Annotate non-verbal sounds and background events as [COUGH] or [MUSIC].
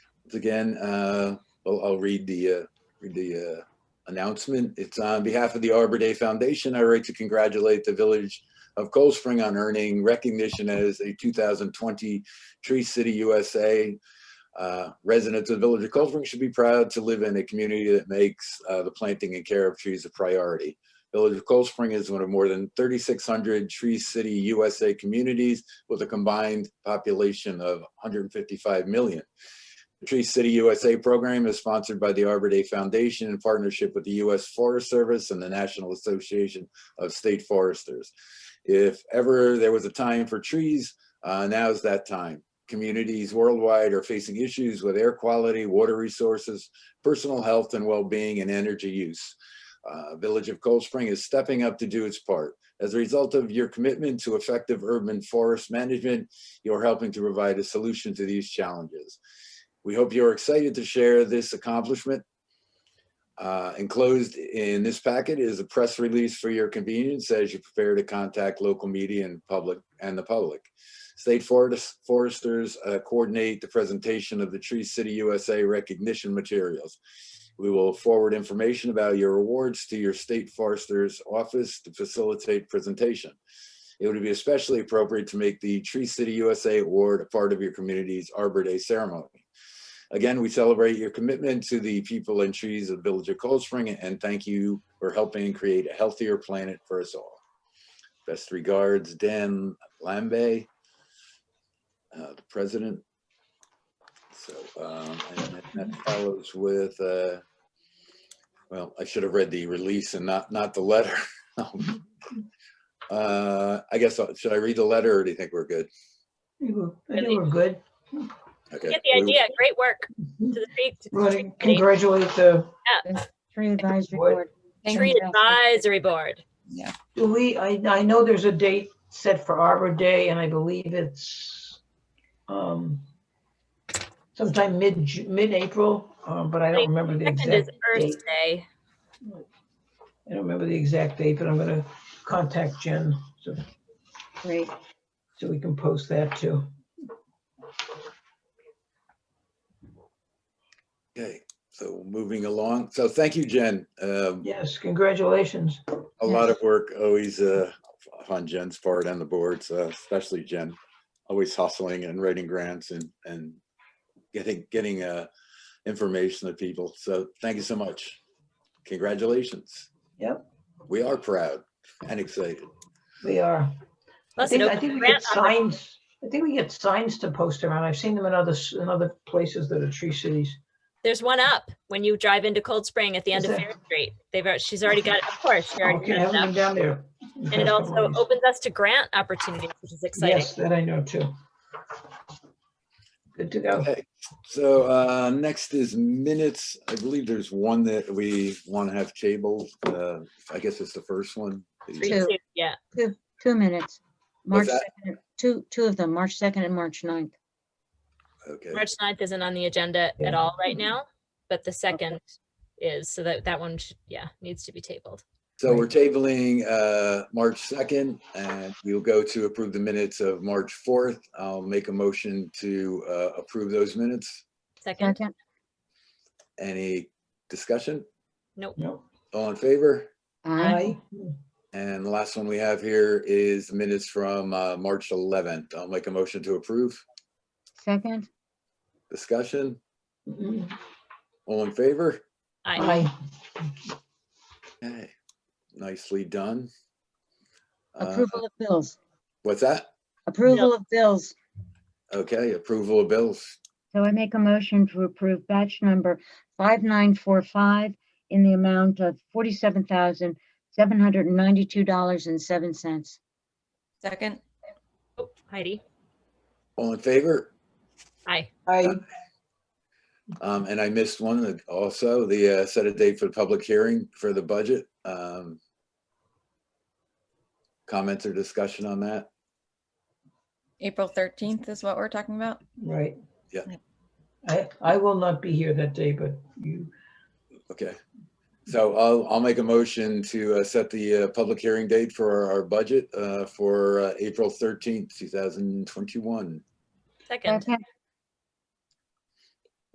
again, uh, I'll, I'll read the, uh, read the, uh, announcement. It's on behalf of the Arbor Day Foundation. I write to congratulate the village of Cold Spring on earning recognition as a two thousand twenty Tree City USA. Uh, residents of the village of Cold Spring should be proud to live in a community that makes, uh, the planting and care of trees a priority. Village of Cold Spring is one of more than thirty-six hundred Tree City USA communities with a combined population of one hundred and fifty-five million. The Tree City USA program is sponsored by the Arbor Day Foundation in partnership with the U.S. Forest Service and the National Association of State Foresters. If ever there was a time for trees, uh, now is that time. Communities worldwide are facing issues with air quality, water resources, personal health and well-being, and energy use. Uh, Village of Cold Spring is stepping up to do its part. As a result of your commitment to effective urban forest management, you're helping to provide a solution to these challenges. We hope you're excited to share this accomplishment. Uh, Enclosed in this packet is a press release for your convenience as you prepare to contact local media and public, and the public. State forest- foresters uh, coordinate the presentation of the Tree City USA recognition materials. We will forward information about your awards to your state forester's office to facilitate presentation. It would be especially appropriate to make the Tree City USA Award a part of your community's Arbor Day ceremony. Again, we celebrate your commitment to the people and trees of the Village of Cold Spring and thank you for helping create a healthier planet for us all. Best regards, Dan Lambe, uh, the president. So, um, and that- that follows with, uh, well, I should have read the release and not, not the letter. [LAUGHS] Um, Uh, I guess, I'll- should I read the letter or do you think we're good? You were- you were good. Okay. Get we- the idea. Great work to the tree- to the Want to tree committee. Congratulate the, Tree advisory What? board. tree advisory board. Yeah, do we, I, I know there's a date set for Arbor Day and I believe it's um sometime mid, Ju- mid-April, um, but I don't remember the Second exact is date. Earth Day. I don't remember the exact date, but I'm gonna contact Jen so, great. so we can post that too. Okay, so moving along. So thank you, Jen. Um, Yes, congratulations. A lot Yes. of work always uh, on Jen's part and the boards, uh, especially Jen, always hustling and writing grants and, and getting, getting uh, information to people. So thank you so much. Congratulations. Yep. We are proud and excited. We are. I Plus, it think, I opens think we grant get signs, I think we get signs to post around. I've seen them in other, s- in other places that are tree cities. There's one up when you drive into Cold Spring at the end Is of there? Fair Street. They've, al- she's already got, it. of course, she already Okay, I got it haven't been down up. there. in the And past [LAUGHS] it couple also of years. opens us to grant opportunities, which is exciting. Yes, that I know too. Good to go. Okay, so uh, next is minutes. I believe there's one that we want to have tabled. Uh, I guess it's the first one. Three, Two. two, Yeah, Two minutes. March that? 2nd, two, two of them, March 2nd and March 9th. Okay. March 9th isn't on the agenda at Yeah. all right now, but the second is, so that, that one, should- yeah, needs to be tabled. So we're tabling uh, March 2nd, and we'll go to approve the minutes of March 4th. I'll make a motion to uh, approve those minutes. Second, Second, Any discussion? nope. Nope. All in favor? Aye. aye, And the last one we have here is the minutes from uh, March 11th. I'll make a motion to approve. second, Discussion? Mm, All in favor? I, Aye. Okay, nicely done. Uh, approval of bills, What's that? approval of bills. Okay, approval of bills. So I make a motion to approve batch number 5945 in the amount of $47,792.07. Second, oh, Heidi, All in favor? I, Aye. Um, and I missed one that also, the, uh, set a date for the public hearing for the budget. Um, comments or discussion on that? April 13th is what we're talking about. Right. Yeah. I, I will not be here that day, but you, Okay. So I'll, I'll make a motion to, uh, set the, uh, public hearing date for our, our budget, uh, for, uh, April thirteenth, two thousand twenty-one. second, Second,